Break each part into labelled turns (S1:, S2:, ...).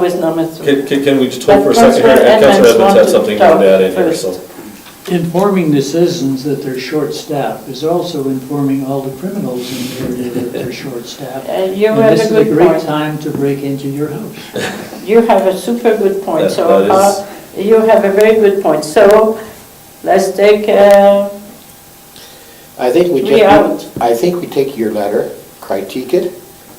S1: With numbers.
S2: Can, can can we just hold for a second here?
S1: Councilor
S2: And
S1: Edmonds
S2: Councilor Edmonds
S1: wanted
S2: had
S1: to
S2: something on
S1: talk
S2: that in here,
S1: first.
S2: so.
S3: Informing the citizens that they're short-staffed is also informing all the criminals in the area that they're short-staffed.
S1: Uh, You
S3: And
S1: have
S3: this
S1: a
S3: is a
S1: good
S3: great
S1: point.
S3: time to break into your house.
S1: You have a super good point,
S2: That-
S1: so,
S2: that is-
S1: uh, you have a very good point. So, let's take, uh,
S4: I think we
S1: Three
S4: take,
S1: hours.
S4: I think we take your letter, critique it,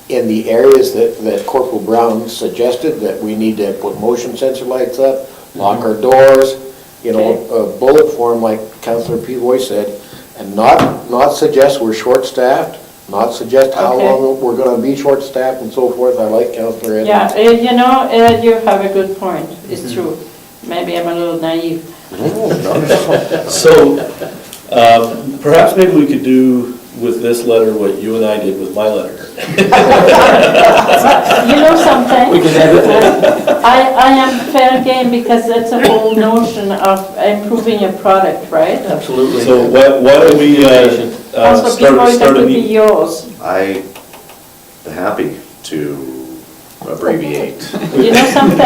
S4: in the areas that, that Corporal Brown suggested, that we need to put motion sensor lights up, lock our doors, you know, a bullet form like Counselor Pivoy said, and not, not suggest we're short-staffed, not suggest how
S1: Okay.
S4: long we're gonna be short-staffed and so forth, I like Counselor Edmonds.
S1: Yeah, uh, you know, uh, you have a good point,
S2: Mm-hmm.
S1: it's true. Maybe I'm a little naive.
S4: Mm-hmm.
S2: So, um, perhaps maybe we could do with this letter what you and I did with my letter.
S1: You know something? Uh, I, I am fair game because that's a whole notion of improving a product, right?
S5: Absolutely.
S2: So why, why don't we, uh, uh,
S1: Also, before
S2: start,
S1: that
S2: start a
S1: would be
S2: meeting?
S1: yours.
S5: I am happy to abbreviate.
S1: You know something?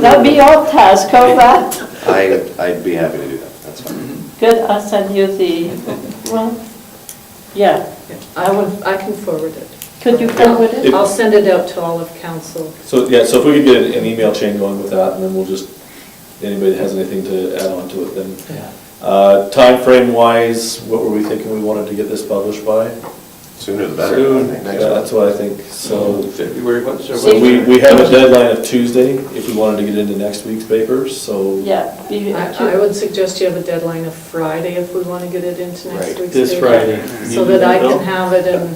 S1: That'll be your task, all right?
S5: I, I'd be happy to do that, that's fine.
S1: Good, I'll send you the, well, yeah,
S6: I will, I can forward it.
S1: could you forward it?
S6: I'll send it out to all of council.
S2: So, yeah, so if we could get an email chain going with that, and then we'll just, anybody that has anything to add on to it, then. Uh, frame wise, what were we thinking we wanted to get this published by?
S5: Sooner the better. I
S2: Soon.
S5: think.
S2: Yeah, that's what I think, so.
S7: February, what's
S1: So
S2: So we, we have a deadline of Tuesday if we wanted to get into next week's papers, so.
S1: Yeah.
S6: I
S1: be-
S6: I would suggest you have a deadline of Friday if we want to get it into next
S4: Right.
S6: week's.
S7: This
S6: meeting,
S7: Friday.
S6: So that I can have it and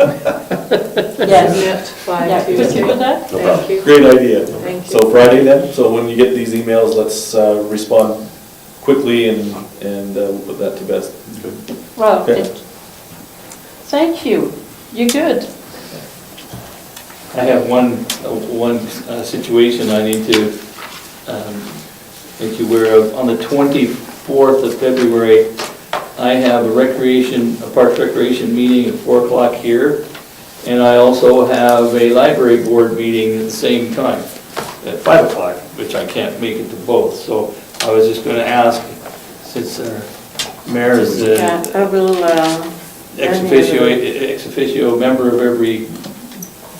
S1: Yes,
S6: submit by
S1: yeah, could you do
S6: Tuesday.
S1: that?
S5: No problem.
S6: Thank you.
S2: Great idea.
S6: Thank you.
S2: So Friday then, so when you get these emails, let's uh, respond quickly and, and uh, we'll put that to
S6: Oh,
S2: best.
S1: Well,
S2: Okay.
S1: it- thank you, you're good.
S7: I have one, uh, one uh, situation I need to um, make you aware of. On the 24th of February, I have a recreation, a park recreation meeting at 4 o'clock here, and I also have a library board meeting at the same time, at 5 o'clock, which I can't make it to both. So I was just going to ask, since our mayor is the
S1: Yeah, I will, uh,
S7: ex officio, ex officio member of every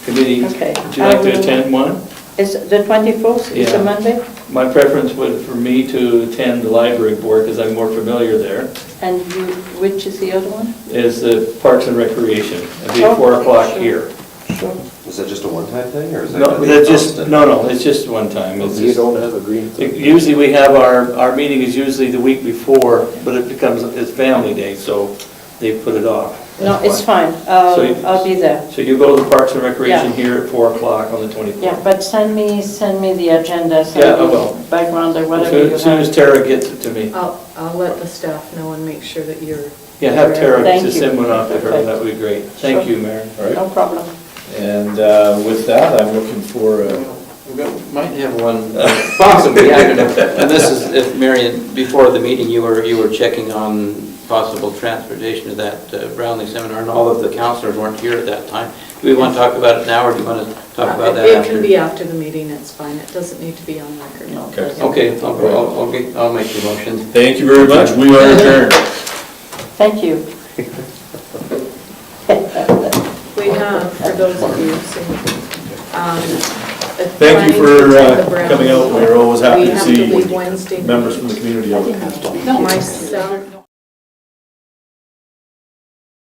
S7: committee.
S1: Okay. Um,
S7: Would you like to attend one?
S1: is the 24th, is a
S7: Yeah.
S1: Monday,
S7: My preference would for me to attend the library board because I'm more familiar there,
S1: and you, which is the other one?
S7: is the Parks and Recreation. It'd be
S1: Oh,
S7: at four o'clock
S1: sure.
S7: here.
S5: Is that just a one-time thing, or is that?
S7: No,
S5: gonna be
S7: that's just,
S5: constant?
S7: no, no, it's just one
S2: Oh,
S7: time. It's
S4: You
S7: just-
S4: don't have a green thumb.
S7: Usually we have our, our meeting is usually the week before, but it becomes, it's family day, so they put it off.
S1: No, it's
S7: That's why.
S1: fine,
S7: So you-
S1: I'll, I'll be there.
S7: So you go to the Parks and Recreation
S1: Yeah.
S7: here at four o'clock on the twenty-fourth.
S1: Yeah, but send me, send me the agenda,
S7: Yeah, I
S1: send
S7: will.
S1: me background or
S7: As
S1: whatever
S7: soon-
S1: you
S7: as soon as
S1: have. Oh,
S7: Tara gets it to me.
S6: I'll, I'll let the staff know and make sure that you're.
S7: Yeah, have Tara
S1: Thank
S7: just
S1: you.
S7: send one off to her,
S1: Perfect.
S7: that would be great. Thank
S1: Sure.
S7: you, Mayor.
S2: All right,
S1: No problem.
S2: and uh, with that, I'm looking for, a-
S8: We Might have one, uh,
S7: Uh,
S8: possibly, I don't know. And this is, if Marion, before the meeting, you were, you were checking on possible transportation to that uh, Brownlee seminar, and all of the counselors weren't here at that time. Do we want to talk about it now, or do you want to talk
S1: Uh,
S8: about that
S6: Uh, It
S8: after?
S6: can be after the meeting, it's fine. It doesn't need to be on record.
S2: Okay.
S8: Okay, I'll, I'll- I'll, get- I'll make the motion.
S2: thank you very much, we are adjourned.
S1: Thank you.
S6: We have, for those of you, so, um.
S2: Thank you for uh, coming out,
S6: We
S2: we're always happy to
S6: have
S2: see
S6: leave Wednesday.
S2: members from the community out.
S6: No, myself.